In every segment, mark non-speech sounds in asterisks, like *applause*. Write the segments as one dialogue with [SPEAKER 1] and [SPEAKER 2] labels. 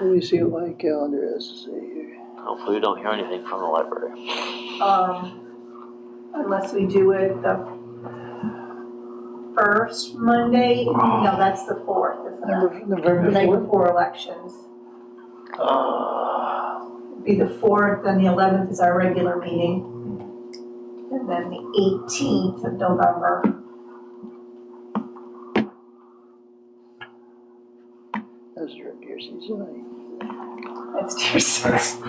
[SPEAKER 1] Let me see what my calendar has to say here.
[SPEAKER 2] Hopefully we don't hear anything from the library.
[SPEAKER 3] Um, unless we do it the first Monday, no, that's the fourth, isn't it?
[SPEAKER 1] Number-
[SPEAKER 3] The
[SPEAKER 1] November
[SPEAKER 3] night
[SPEAKER 1] fourth?
[SPEAKER 3] before elections.
[SPEAKER 1] Uh,
[SPEAKER 3] Be the fourth, then the eleventh is our regular meeting. And then the eighteenth of November.
[SPEAKER 1] That's during deer season.
[SPEAKER 3] That's *laughs* deer season.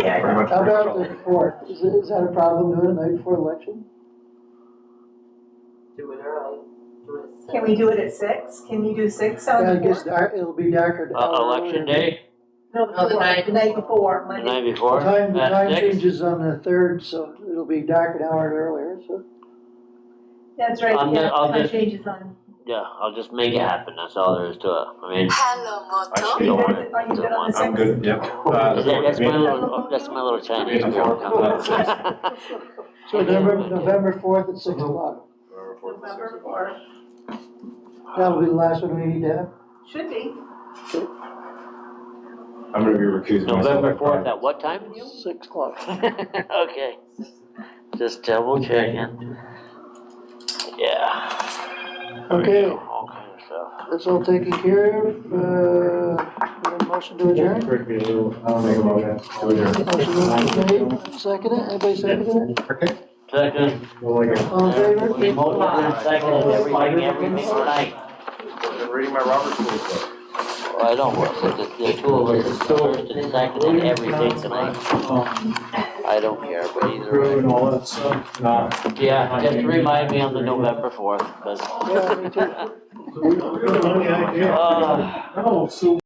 [SPEAKER 3] Yeah,
[SPEAKER 4] Pretty much
[SPEAKER 1] How about
[SPEAKER 4] virtual.
[SPEAKER 1] the fourth? Is, it- is that a problem doing it the night before election?
[SPEAKER 5] Do it early, do it at six.
[SPEAKER 3] can we do it at six? Can you do six on
[SPEAKER 1] Yeah,
[SPEAKER 3] the
[SPEAKER 1] it gets
[SPEAKER 3] fourth?
[SPEAKER 1] dark, it'll be darker. an
[SPEAKER 2] Uh,
[SPEAKER 1] hour
[SPEAKER 2] election
[SPEAKER 1] earlier.
[SPEAKER 2] day,
[SPEAKER 3] No, the
[SPEAKER 5] No, the
[SPEAKER 3] fourth,
[SPEAKER 5] night
[SPEAKER 3] the night
[SPEAKER 5] before.
[SPEAKER 3] before,
[SPEAKER 2] the
[SPEAKER 3] Monday.
[SPEAKER 2] night
[SPEAKER 1] The
[SPEAKER 2] before,
[SPEAKER 1] Time, the
[SPEAKER 2] at
[SPEAKER 1] time
[SPEAKER 2] six.
[SPEAKER 1] changes on the third, so it'll be dark an hour earlier, so.
[SPEAKER 3] That's right,
[SPEAKER 2] I'm
[SPEAKER 3] yeah,
[SPEAKER 2] not- I'll
[SPEAKER 3] time
[SPEAKER 2] just-
[SPEAKER 3] changes on.
[SPEAKER 2] Yeah, I'll just make it happen, that's all there is to it. I mean,
[SPEAKER 6] Hello, Moto.
[SPEAKER 4] Actually,
[SPEAKER 2] don't
[SPEAKER 3] Are
[SPEAKER 2] want
[SPEAKER 3] you
[SPEAKER 2] it,
[SPEAKER 3] good on
[SPEAKER 2] don't want
[SPEAKER 3] the
[SPEAKER 2] it.
[SPEAKER 4] I'm good, yep. Uh, the
[SPEAKER 2] that-
[SPEAKER 4] fourth
[SPEAKER 2] that's
[SPEAKER 4] meeting.
[SPEAKER 2] my little, that's my little Chinese.
[SPEAKER 4] Meeting.
[SPEAKER 1] *laughs*
[SPEAKER 2] wall.
[SPEAKER 1] So
[SPEAKER 2] Yeah, Uh-huh.
[SPEAKER 1] November,
[SPEAKER 2] Monday.
[SPEAKER 1] November fourth at six o'clock.
[SPEAKER 4] November fourth and sixth
[SPEAKER 3] November
[SPEAKER 4] of March.
[SPEAKER 3] fourth,
[SPEAKER 1] That'll be the last one we need to have.
[SPEAKER 3] should be.
[SPEAKER 4] I'm gonna be recusing myself.
[SPEAKER 2] November fourth at what time? *laughs*
[SPEAKER 1] Six o'clock.
[SPEAKER 2] Okay, just double checking. Yeah.
[SPEAKER 1] Okay.
[SPEAKER 2] All kind of stuff.
[SPEAKER 1] That's all taken care of, uh, motion to adjourn?
[SPEAKER 4] I'll make a motion. to adjourn.
[SPEAKER 1] Motion made, seconded, anybody seconded it?
[SPEAKER 2] Second.
[SPEAKER 1] All in favor?
[SPEAKER 2] Multiple second, everything, everything tonight.
[SPEAKER 4] I'm reading my Robert's rules. book.
[SPEAKER 2] Well, I don't work, but the, the two of us, is first and second and everything tonight. I don't care, but either way.
[SPEAKER 7] and all that stuff.
[SPEAKER 4] Nah.
[SPEAKER 2] Yeah, just remind me on the November fourth, cause,
[SPEAKER 1] Yeah, me too.
[SPEAKER 7] So we don't- we don't have any idea.
[SPEAKER 2] *laughs* uh.
[SPEAKER 7] No, so